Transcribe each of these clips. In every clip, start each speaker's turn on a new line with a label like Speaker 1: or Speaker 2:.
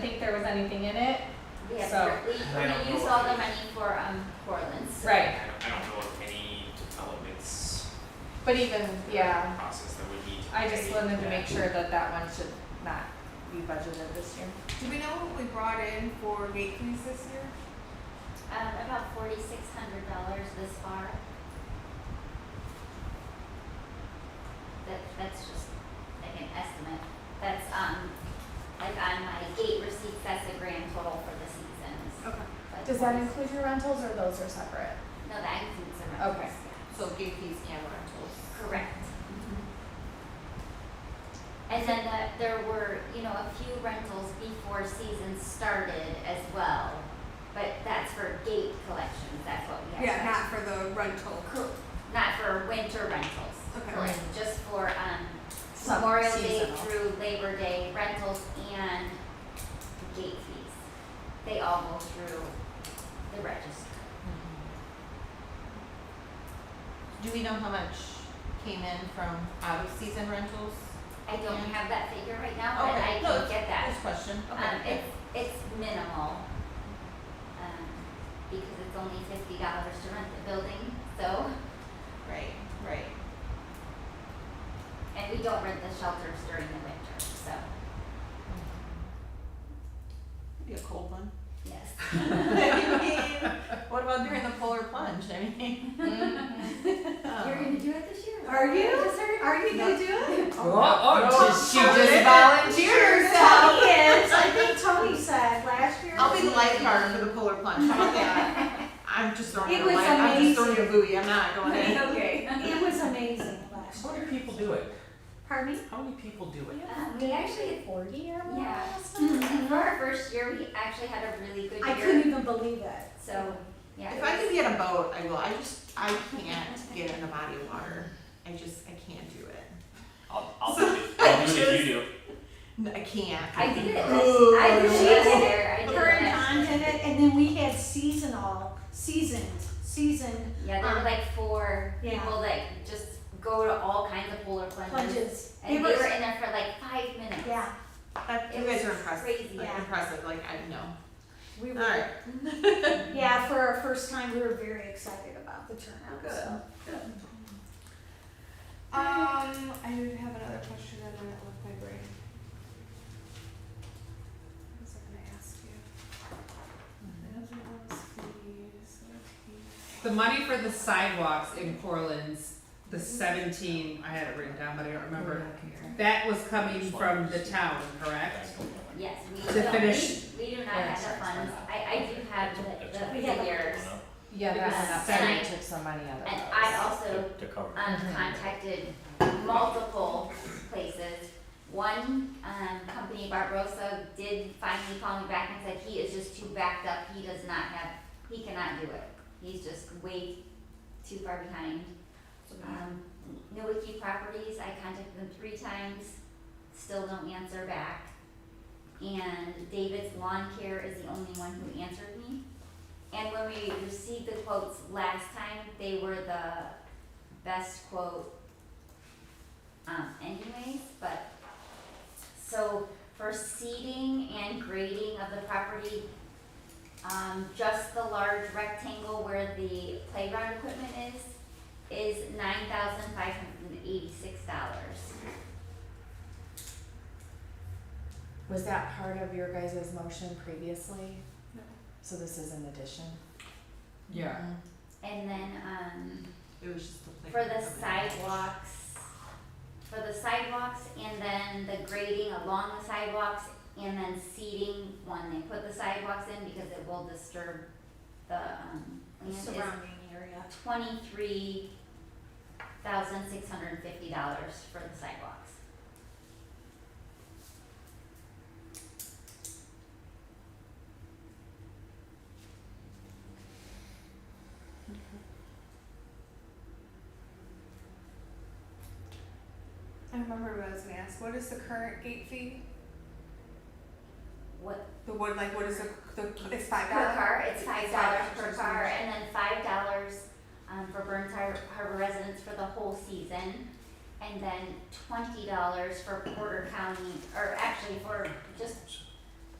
Speaker 1: there was anything in it.
Speaker 2: We have,
Speaker 1: So-
Speaker 2: we,
Speaker 3: I
Speaker 2: we're
Speaker 3: don't
Speaker 2: gonna use
Speaker 3: know.
Speaker 2: all the money for, um, Cortland's.
Speaker 3: I
Speaker 1: Right.
Speaker 3: don't, I don't know of any developments
Speaker 1: But even, yeah,
Speaker 3: process that would need to
Speaker 1: I just
Speaker 3: pay
Speaker 1: wanted to
Speaker 3: that.
Speaker 1: make sure that that one should not be budgeted this year.
Speaker 4: Do we know what we brought in for gate fees this year?
Speaker 2: Um, about forty-six hundred dollars this far. That, that's just like an estimate, that's, um, like on my gate receipts, that's a grand total for the season. is
Speaker 4: Okay.
Speaker 2: like
Speaker 1: Does that
Speaker 2: 46
Speaker 1: include your rentals or those are separate?
Speaker 2: No, that includes the rentals,
Speaker 1: Okay.
Speaker 2: yeah.
Speaker 5: So gate fees and rentals.
Speaker 2: Correct.
Speaker 6: Mm-hmm.
Speaker 2: And then the- there were, you know, a few rentals before season started as well, but that's for gate collections, that's what we have.
Speaker 4: Yeah, not for the rental.
Speaker 2: Cor- Not for winter rentals,
Speaker 4: Okay.
Speaker 2: correct, just for, um,
Speaker 1: Summer,
Speaker 2: Memorial Day
Speaker 1: seasonal.
Speaker 2: through Labor Day rentals and gate fees. They all go through the register.
Speaker 1: Mm-hmm.
Speaker 5: Do we know how much came in from out of season rentals?
Speaker 2: I don't
Speaker 5: Yeah.
Speaker 2: have that figure right now, but
Speaker 5: Okay,
Speaker 2: I
Speaker 5: no,
Speaker 2: can get that.
Speaker 5: This question,
Speaker 2: Um,
Speaker 5: okay.
Speaker 2: it's, it's minimal, um, because it's only fifty dollars to rent the building, so,
Speaker 5: Right, right.
Speaker 2: and we don't rent the shelters during the winter, so,
Speaker 5: Be a cold one.
Speaker 2: yes.
Speaker 5: What about during the polar plunge, I mean?
Speaker 1: Mm-hmm.
Speaker 5: um,
Speaker 2: You're gonna do it this year?
Speaker 4: Are you?
Speaker 2: I just heard.
Speaker 4: Are you gonna do it?
Speaker 7: Oh, oh, she, she just
Speaker 4: volunteered herself.
Speaker 7: I think Tony said last year.
Speaker 5: I'll be the lifeguard for the polar plunge, how about that? I'm just throwing
Speaker 7: It
Speaker 5: a
Speaker 7: was
Speaker 5: life, I'm just throwing a
Speaker 7: amazing.
Speaker 5: buoy, I'm not going in.
Speaker 4: Okay.
Speaker 7: It was amazing last
Speaker 3: How
Speaker 7: year.
Speaker 3: many people do it?
Speaker 7: Pardon me?
Speaker 3: How many people do it?
Speaker 2: Um, we actually,
Speaker 1: forty or
Speaker 2: more and for our first year, we actually had a really good
Speaker 7: I
Speaker 2: year,
Speaker 7: couldn't even believe it.
Speaker 2: so, yeah.
Speaker 5: If
Speaker 2: it
Speaker 5: I
Speaker 2: was-
Speaker 5: can get a boat, I will, I just, I can't get in a body of water, I just, I can't do it.
Speaker 3: I'll, I'll do it, I'll do it if you do.
Speaker 5: No, I can't.
Speaker 2: I did it, last- I did it last year, I did it
Speaker 7: Her and
Speaker 2: last
Speaker 7: Don
Speaker 2: year.
Speaker 7: did it, and then we had seasonal, seasoned, seasoned
Speaker 2: Yeah, there were
Speaker 7: Um,
Speaker 2: like four
Speaker 7: yeah.
Speaker 2: people that just go to all kinds of polar plunges.
Speaker 7: plunges.
Speaker 2: And
Speaker 7: It
Speaker 2: they
Speaker 7: was,
Speaker 2: were in there for like five minutes.
Speaker 7: yeah,
Speaker 5: That- You
Speaker 2: It
Speaker 5: guys
Speaker 2: was
Speaker 5: are impressive,
Speaker 2: crazy.
Speaker 5: like
Speaker 7: Yeah.
Speaker 5: impressive, like I know.
Speaker 7: we were.
Speaker 5: Alright.
Speaker 7: Yeah, for our first time, we were very excited about the turnout. so.
Speaker 4: Um, I did have another question and then it left my brain. What was I gonna ask you? Management fees, fees.
Speaker 6: The money for the sidewalks in Portland's, the seventeen, I had it written down, but I don't remember. That was coming from the town, correct?
Speaker 2: Yes, we
Speaker 6: To
Speaker 2: don't,
Speaker 6: finish-
Speaker 2: we, we do not have the funds. I, I do have the, the
Speaker 7: We have-
Speaker 2: figures.
Speaker 1: Yeah, that's
Speaker 2: Because-
Speaker 1: enough, we took some money out of
Speaker 2: And
Speaker 1: those.
Speaker 2: I also,
Speaker 3: To cover.
Speaker 2: um, contacted multiple places. One, um, company, Barbarossa, did finally call me back and said, he is just too backed up. He does not have, he cannot do it. He's just way too far behind. Um, Nowicki Properties, I contacted them three times, still don't answer back. And David's Lawn Care is the only one who answered me. And when we received the quotes last time, they were the best quote um, anyways, but, so for seeding and grading of the property, um, just the large rectangle where the playground equipment is, is nine thousand five hundred and eighty-six dollars.
Speaker 1: Was that part of your guys' motion previously?
Speaker 4: No.
Speaker 1: So this is an addition? Mm-hmm.
Speaker 6: Yeah.
Speaker 2: And then, um,
Speaker 5: It was just the.
Speaker 2: for the
Speaker 5: playground.
Speaker 2: sidewalks, for the sidewalks and then the grading along the sidewalks and then seeding when they put the sidewalks in because it will disturb the, um,
Speaker 7: The
Speaker 2: land is
Speaker 7: Surrounding area.
Speaker 2: twenty-three thousand six hundred and fifty dollars for the sidewalks.
Speaker 4: I remember what I was gonna ask. What is the current gate fee?
Speaker 2: What,
Speaker 4: The one, like, what is the, the, it's five
Speaker 2: per
Speaker 4: dollars?
Speaker 2: car, it's five
Speaker 4: Five
Speaker 2: dollars
Speaker 4: dollars
Speaker 2: per
Speaker 4: per
Speaker 2: car,
Speaker 4: season.
Speaker 2: and then five dollars, um, for Burns Har- Harbor residents for the whole season. And then twenty dollars for Porter County, or actually for just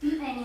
Speaker 2: anyone